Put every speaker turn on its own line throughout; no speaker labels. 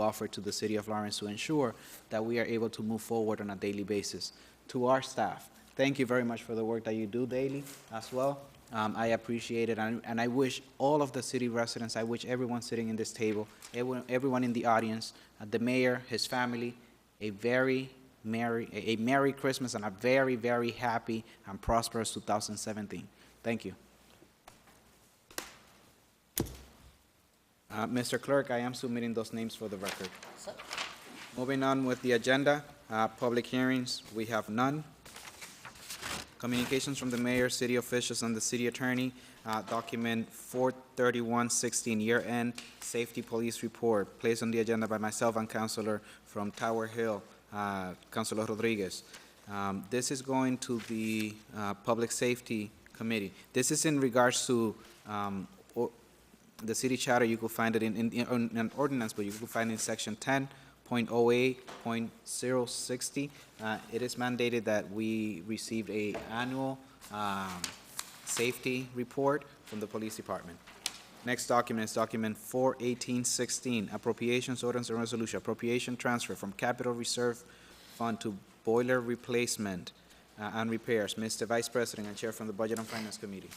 offer to the city of Lawrence to ensure that we are able to move forward on a daily basis. To our staff, thank you very much for the work that you do daily as well. Um, I appreciate it, and and I wish all of the city residents, I wish everyone sitting in this table, everyone everyone in the audience, uh, the mayor, his family, a very merry, a a merry Christmas and a very, very happy and prosperous 2017. Thank you. Uh, Mr. Clerk, I am submitting those names for the record. Moving on with the agenda, uh, public hearings, we have none. Communications from the mayor, city officials, and the city attorney, uh, document 43116, year-end safety police report, placed on the agenda by myself and Counselor from Tower Hill, uh, Counselor Rodriguez. Um, This is going to the uh, Public Safety Committee. This is in regards to um, o- the city charter, you could find it in, in, in an ordinance, but you could find it in section ten point oh eight point zero sixty. Uh, it is mandated that we received a annual, um, safety report from the police department. Next document is document four eighteen sixteen, appropriations ordinance and resolution, appropriation transfer from capital reserve fund to boiler replacement uh, and repairs. Mr. Vice President and Chair from the Budget and Finance Committee.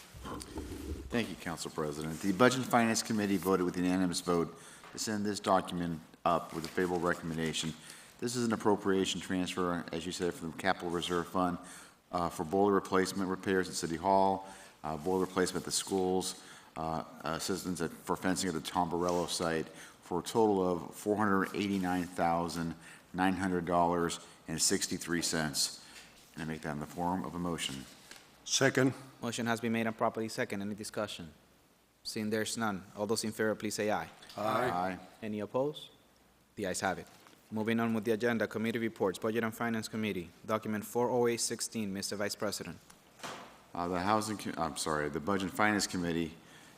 Thank you, Council President. The Budget and Finance Committee voted with unanimous vote to send this document up with a favorable recommendation. This is an appropriation transfer, as you said, from the Capital Reserve Fund uh, for boiler replacement repairs at City Hall, uh, boiler replacement at the schools, uh, assistance at- for fencing at the Tomborello site, for a total of $489,900.63. And I make that in the form of a motion.
Second.
Motion has been made and properly second. Any discussion? Seeing there's none, all those in favor, please say aye.
Aye.
Any opposed? The ayes have it. Moving on with the agenda, committee reports, Budget and Finance Committee, document 40816, Mr. Vice President.
Uh, The Housing, Com- I'm sorry, the Budget and Finance Committee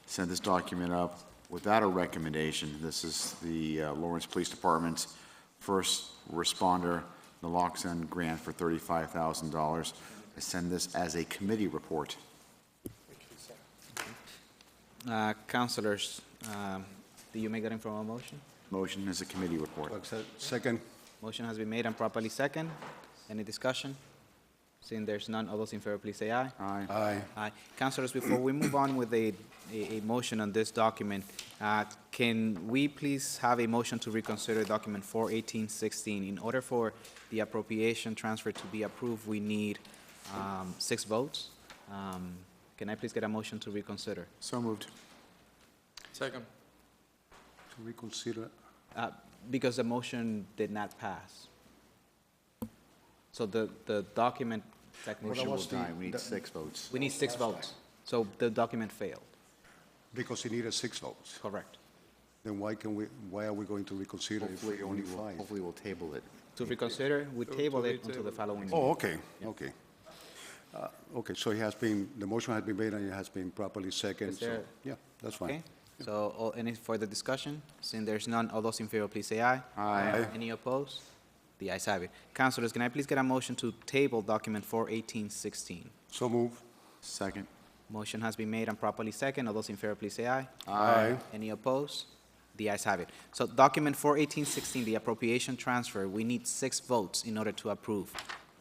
sent this document up without a recommendation. This is the uh, Lawrence Police Department's first responder naloxone grant for $35,000. I send this as a committee report.
Uh, Councilors, um, do you make that in form of motion?
Motion is a committee report.
Second.
Motion has been made and properly second. Any discussion? Seeing there's none, all those in favor, please say aye.
Aye.
Aye.
Aye. Councilors, Uh, before we move on with a, a, a motion on this document, uh, can we please have a motion to reconsider document four eighteen sixteen? In order for the appropriation transfer to be approved, we need, um, six votes. Um, can I please get a motion to reconsider?
So moved.
Second.
To reconsider.
Uh, because the motion did not pass. So the, the document technically
Motion will
was the-
die. We need
that-
six votes.
we need six votes. So the document failed,
Because it needed six votes.
correct?
Then why can we, why are we going to reconsider if
Hopefully,
only
only we'll-
five?
hopefully we'll table it.
To reconsider, we table it until the
retable.
following meeting.
Oh, okay, okay. Uh, Okay, so it has been, the motion has been made and it has been properly second,
Is
so,
there-
yeah, that's
Okay,
fine.
so, all- any further discussion? Seeing there's none, all those in favor, please say aye.
Aye.
Any opposed? The ayes have it. Councilors, can I please get a motion to table document four eighteen sixteen?
So move.
Second.
Motion has been made and properly second, all those in favor, please say aye.
Aye.
Any opposed? The ayes have it. So document four eighteen sixteen, the appropriation transfer, we need six votes in order to approve.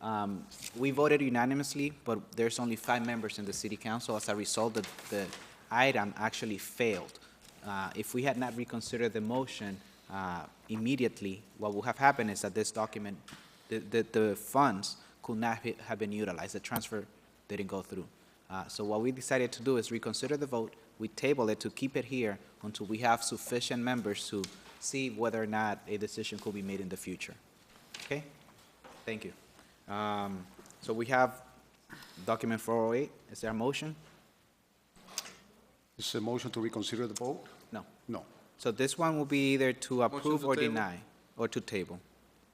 Um, we voted unanimously, but there's only five members in the city council. As a result, the, the item actually failed. Uh, if we had not reconsidered the motion, uh, immediately, what would have happened is that this document, the, the, the funds could not ha- have been utilized. The transfer didn't go through. Uh, So what we decided to do is reconsider the vote, we table it to keep it here until we have sufficient members to see whether or not a decision could be made in the future. Okay? Thank you. Um, So we have document 408, is there a motion?
Is the motion to reconsider the vote?
No.
No.
So this one will be either to approve
to
or
table.
deny, or to table.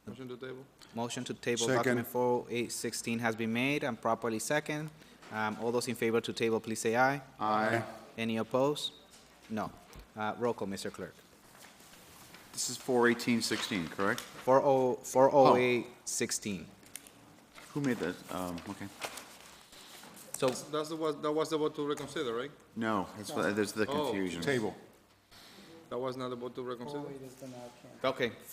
Motion to table?
Motion to table
Second.
document 40816 has been made and properly second. Um, All those in favor to table, please say aye.
Aye.
Any opposed? No. Uh, Roll call, Mr. Clerk.
This is 41816, correct?
oh, 40816.
Who made that? Um, Okay.
So,
That's the, was- that was the vote to reconsider, right?
No, that's why- there's uh, the
Oh.
confusion.
Table.
That was not the vote to reconsider?
Oh, it is the now, Ken.
Okay,